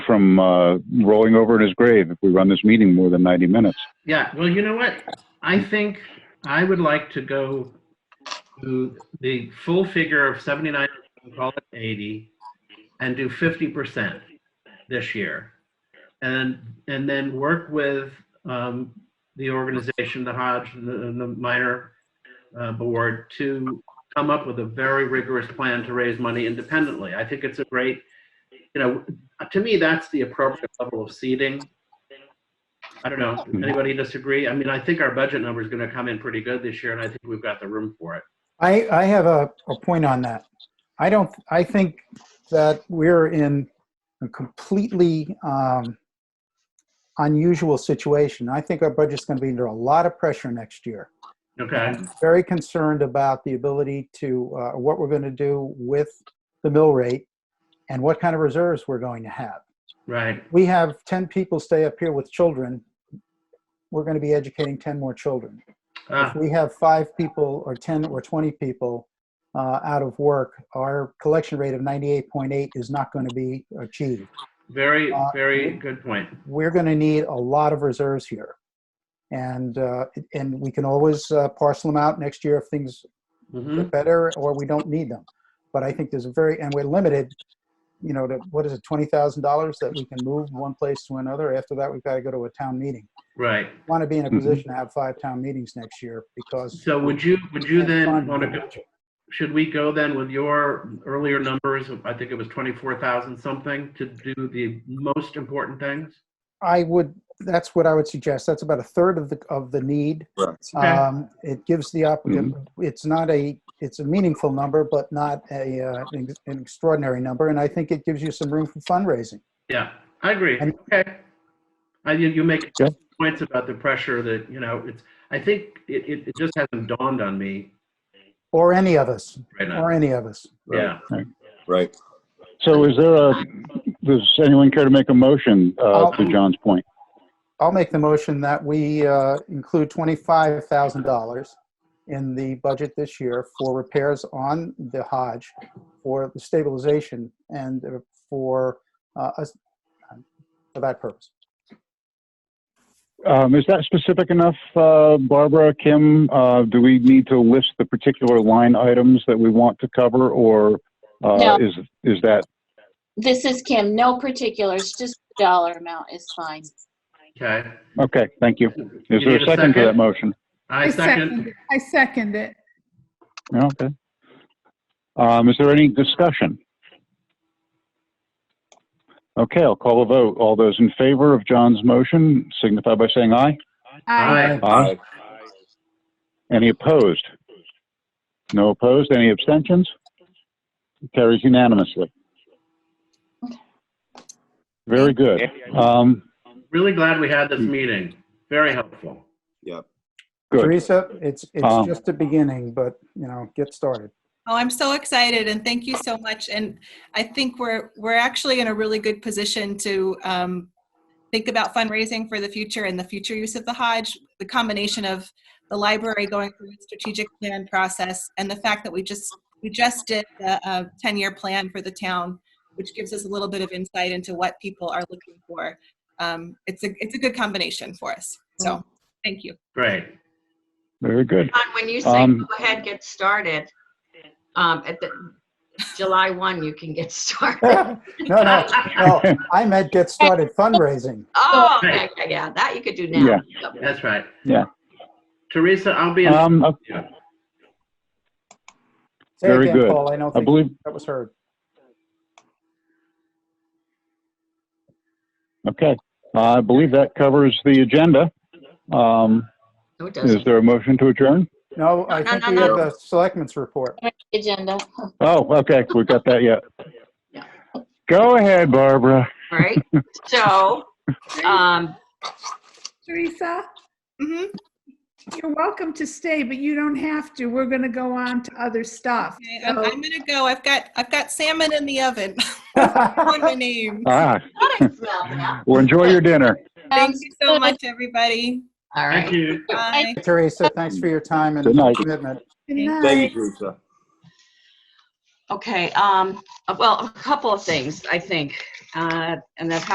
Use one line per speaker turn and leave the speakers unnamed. from uh, rolling over in his grave if we run this meeting more than 90 minutes.
Yeah, well, you know what? I think I would like to go to the full figure of 79, call it 80, and do 50% this year. And, and then work with um, the organization, the Hodge, and the, and the minor uh, board to come up with a very rigorous plan to raise money independently. I think it's a great, you know, to me, that's the appropriate level of seeding. I don't know.
Hmm.
Anybody disagree? I mean, I think our budget number is going to come in pretty good this year, and I think we've got the room for it.
I, I have a, a point on that. I don't, I think that we're in a completely um, unusual situation. I think our budget's going to be under a lot of pressure next year.
Okay.
I'm Very concerned about the ability to, uh, what we're going to do with the mill rate and what kind of reserves we're going to have.
Right.
We have 10 people stay up here with children. We're going to be educating 10 more children
Ah,
if we have five people or 10 or 20 people uh, out of work, our collection rate of 98.8 is not going to be achieved.
very,
Uh,
very good point.
We're going to need a lot of reserves here. And, uh, and we can always uh, parcel them out next year if things
hmm
get better or we don't need them. But I think there's a very, and we're limited, you know, to, what is it, $20,000 that we can move from one place to another. After that, we've got to go to a town meeting.
Right.
Want to be in a
Mm-hmm.
Mhm.
position to have five town meetings next year because.
So would you, would you then
Fund-
want to go, should we go then with your earlier numbers? I think it was 24,000 something to do the most important things?
I would, that's what I would suggest. That's about a third of the, of the need.
Correct.
Okay.
Um, It gives the applicant, it's not a, it's a meaningful number, but not a, uh, an ex- an extraordinary number. And I think it gives you some room for fundraising.
Yeah, I agree.
And-
Okay. I, you, you make
Yeah.
points about the pressure that, you know, it's, I think it, it, it just hasn't dawned on me
Or any of us,
right now.
or any of us.
Yeah.
Right.
So is there a, does anyone care to make a motion uh, to John's point?
I'll make the motion that we uh, include $25,000 in the budget this year for repairs on the Hodge, for the stabilization and uh, for, uh, us- for that purpose.
Um, Is that specific enough, uh, Barbara, Kim? Uh, Do we need to list the particular line items that we want to cover, or uh,
No.
is is that,
This is Kim. No particulars, just the dollar amount is fine.
Okay.
okay, thank you.
You
Is there
need
a second to that motion?
I second.
it. I second it.
Yeah, Okay. Um, Is there any discussion? Okay, I'll call a vote. All those in favor of John's motion signify by saying aye.
I
Aye.
Aye.
Any opposed? No opposed? Any abstentions? Carries unanimously. Very good. Um,
Really glad we had this meeting. Very helpful.
good.
Teresa, it's,
Um,
it's just the beginning, but, you know, get started.
Oh, I'm so excited and thank you so much. And I think we're, we're actually in a really good position to um, think about fundraising for the future and the future use of the Hodge. The combination of the library going through its strategic plan process and the fact that we just, we just did the uh, 10-year plan for the town, which gives us a little bit of insight into what people are looking for. Um, It's a, it's a good combination for us. So, thank you.
Great.
Very good.
John, when you say
Um,
go ahead, get started, um, at the, July one, you can get started.
No, no, well, I meant get started fundraising.
Oh, yeah, yeah, yeah, that you could do now. Yep.
That's right.
Yeah.
Teresa, I'll be in.
Um, I-
Yeah.
Say
Very
again,
good.
Paul, I don't
I
think
believe,
that was heard.
okay, I believe that covers the agenda. Um,
No, it
is
doesn't.
there a motion to adjourn?
No, I
No,
think
no,
we
no.
have the selectmen's report.
Agenda.
Oh, okay, we got that yet.
Yeah.
Go ahead, Barbara.
All right. So, um,
Teresa,
Mhm.
you're welcome to stay, but you don't have to. We're going to go on to other stuff.
Okay, I'm, I'm gonna go. I've got, I've got salmon in the oven on my
Good
name.
Ah,
what is that now?
well, enjoy your dinner.
Thank you so
Sounds
much, everybody.
All
Thank
right.
you.
Bye.
Teresa, thanks for your time and
Good night.
commitment.
Good
Thank
night.
Thank you, Teresa.
Okay, um, well, a couple of things, I think, uh, and that's